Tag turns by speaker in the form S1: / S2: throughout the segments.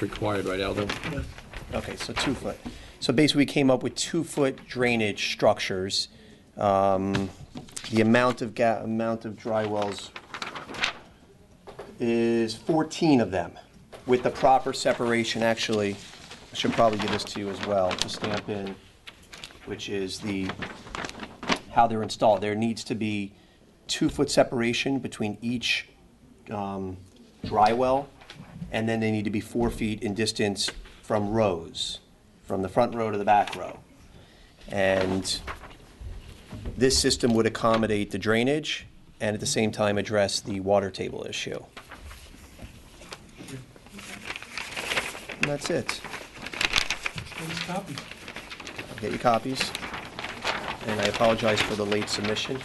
S1: It's required, right, Aldo?
S2: Okay, so two foot. So basically, we came up with two-foot drainage structures. Um, The amount of ga, amount of dry wells is 14 of them, with the proper separation, actually, I should probably give this to you as well, to stamp in, which is the, how they're installed. There needs to be two-foot separation between each um, dry well, and then they need to be four feet in distance from rows, from the front row to the back row. And this system would accommodate the drainage and at the same time address the water table issue. And that's it. I'll Get your copies. And I apologize for the late submission.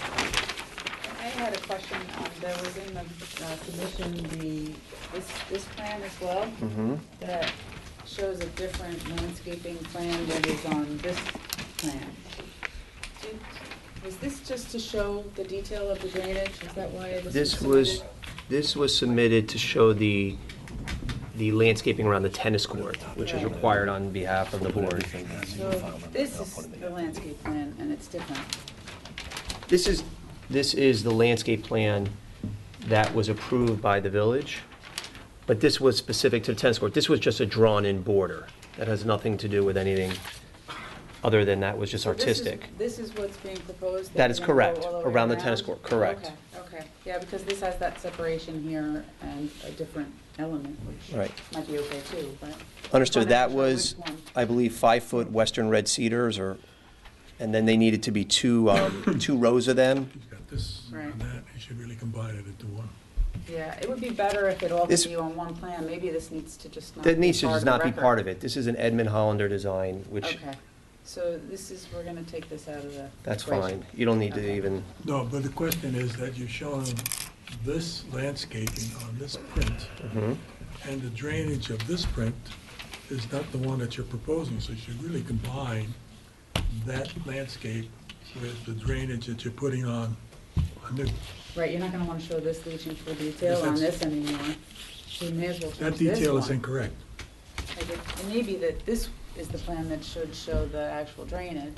S3: I had a question, um, there was in the uh, submission, the, this, this plan as well.
S2: Mm-hmm.
S3: That shows a different landscaping plan that is on this plan. Do- Was this just to show the detail of the drainage, is that why it was?
S2: This
S3: submitted?
S2: was, this was submitted to show the, the landscaping around the tennis court, which is required on behalf of the board.
S3: So, this is the landscape plan, and it's different.
S2: This is, this is the landscape plan that was approved by the village, but this was specific to the tennis court. This was just a drawn-in border. That has nothing to do with anything other than that was just
S3: So this is-
S2: artistic.
S3: This is what's being proposed?
S2: That is
S3: they're gonna go
S2: correct,
S3: all way
S2: around the tennis court, correct.
S3: Okay, okay, yeah, because this has that separation here and a different element, which
S2: Right.
S3: might be okay too, but.
S2: Understood, that
S3: Wanna make
S2: was,
S3: sure which one.
S2: I believe, five-foot western red cedars, or, and then they needed to be two, um, two rows of them.
S4: He's got this
S3: Right.
S4: and that, he should really combine it into one.
S3: Yeah, it would be better if it all could
S2: This-
S3: be on one plan, maybe this needs to just not.
S2: That needs to just not be part
S3: the
S2: of it. This is an Edmund Hollander design, which,
S3: record. Okay, so this is, we're gonna take this out of the.
S2: that's
S3: equation.
S2: fine. You don't need to
S3: Okay.
S2: even,
S4: No, but the question is that you're showing this landscaping on this print,
S2: Mm-hmm.
S4: and the drainage of this print is not the one that you're proposing, so you should really combine that landscape with the drainage that you're putting on a new.
S3: Right, you're not gonna wanna show this leaching full detail
S4: Yes,
S3: on
S4: that's-
S3: this anymore, so you may as well
S4: That
S3: change this
S4: detail is
S3: one.
S4: incorrect.
S3: Like, it it may be that this is the plan that should show the actual drainage,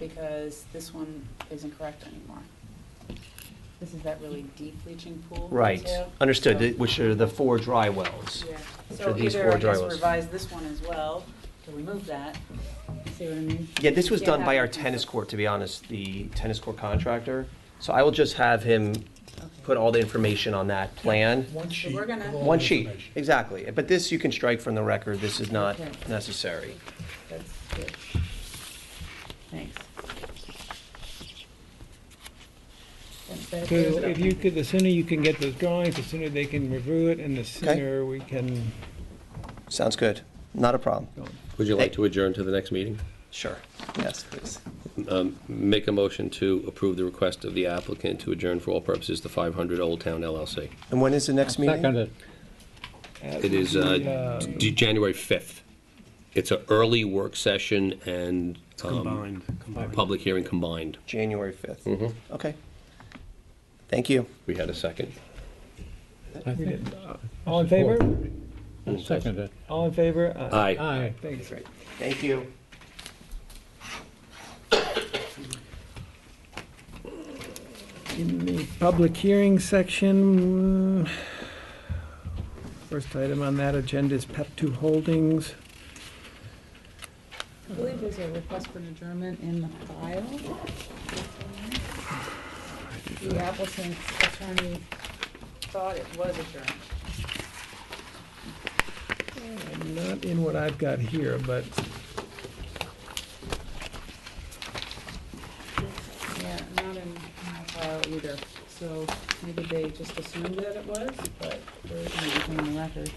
S3: because this one isn't correct anymore. This is that really deep leaching pool.
S2: right,
S3: detail.
S2: understood,
S3: So-
S2: th- which are the four dry wells.
S3: Yeah,
S2: Which are
S3: so
S2: these
S3: either
S2: four
S3: I guess
S2: drywells.
S3: revise this one as well, to remove that, see what I mean?
S2: Yeah, this was
S3: Yeah,
S2: done by
S3: that
S2: our
S3: would be
S2: tennis
S3: good.
S2: court, to be honest, the tennis court contractor. So I will just have him put all the information on that plan.
S4: One sheet.
S3: we're gonna-
S4: with all the
S2: One sheet,
S4: information.
S2: exactly. But this, you can strike from the record, this is not
S3: Okay.
S2: necessary.
S3: That's good. Thanks. That's better.
S5: So if you could, the sooner you can get those drawings, the sooner they can review it, and the sooner we can.
S2: Sounds good, not a problem.
S1: Would you like to adjourn to the next meeting?
S2: Sure, yes, please.
S1: Make a motion to approve the request of the applicant to adjourn for all purposes to 500 Old Town LLC.
S2: And when is the next meeting?
S1: It is uh, d- January 5th. It's an early work session and um, public hearing combined.
S2: January 5th. Okay. Thank you.
S1: We had a second.
S5: All in favor?
S6: Second it.
S5: All in favor? Uh,
S1: Aye.
S6: Aye.
S5: Thanks.
S2: Thank you.
S5: In the public hearing section, uh, first item on that agenda is Pep Two Holdings.
S3: I believe there's a request for an adjournment in the file. The applicant's attorney thought it was adjourned.
S5: Not in what I've got here, but
S3: Yeah, not in my file either, so maybe they just assumed that it was, but there isn't anything on the record.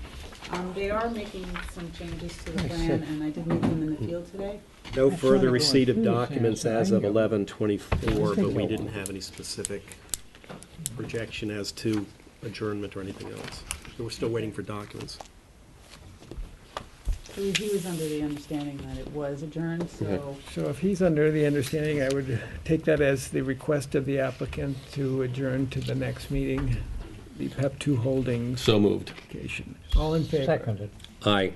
S3: Um, they are making some changes to the plan, and I did meet them in the field today.
S7: No
S6: I
S7: further
S6: thought it
S7: receipt of
S6: was.
S7: documents as of eleven twenty-four, but we
S6: Bingo.
S7: didn't have any specific projection as to adjournment or anything else. So We're still waiting for documents.
S3: He he was under the understanding that it was adjourned, so
S5: so if he's under the understanding, I would take that as the request of the applicant to adjourn to the next meeting, the Pep Two Holdings
S1: So moved.
S5: application. All in favor?
S6: Seconded.
S1: Aye.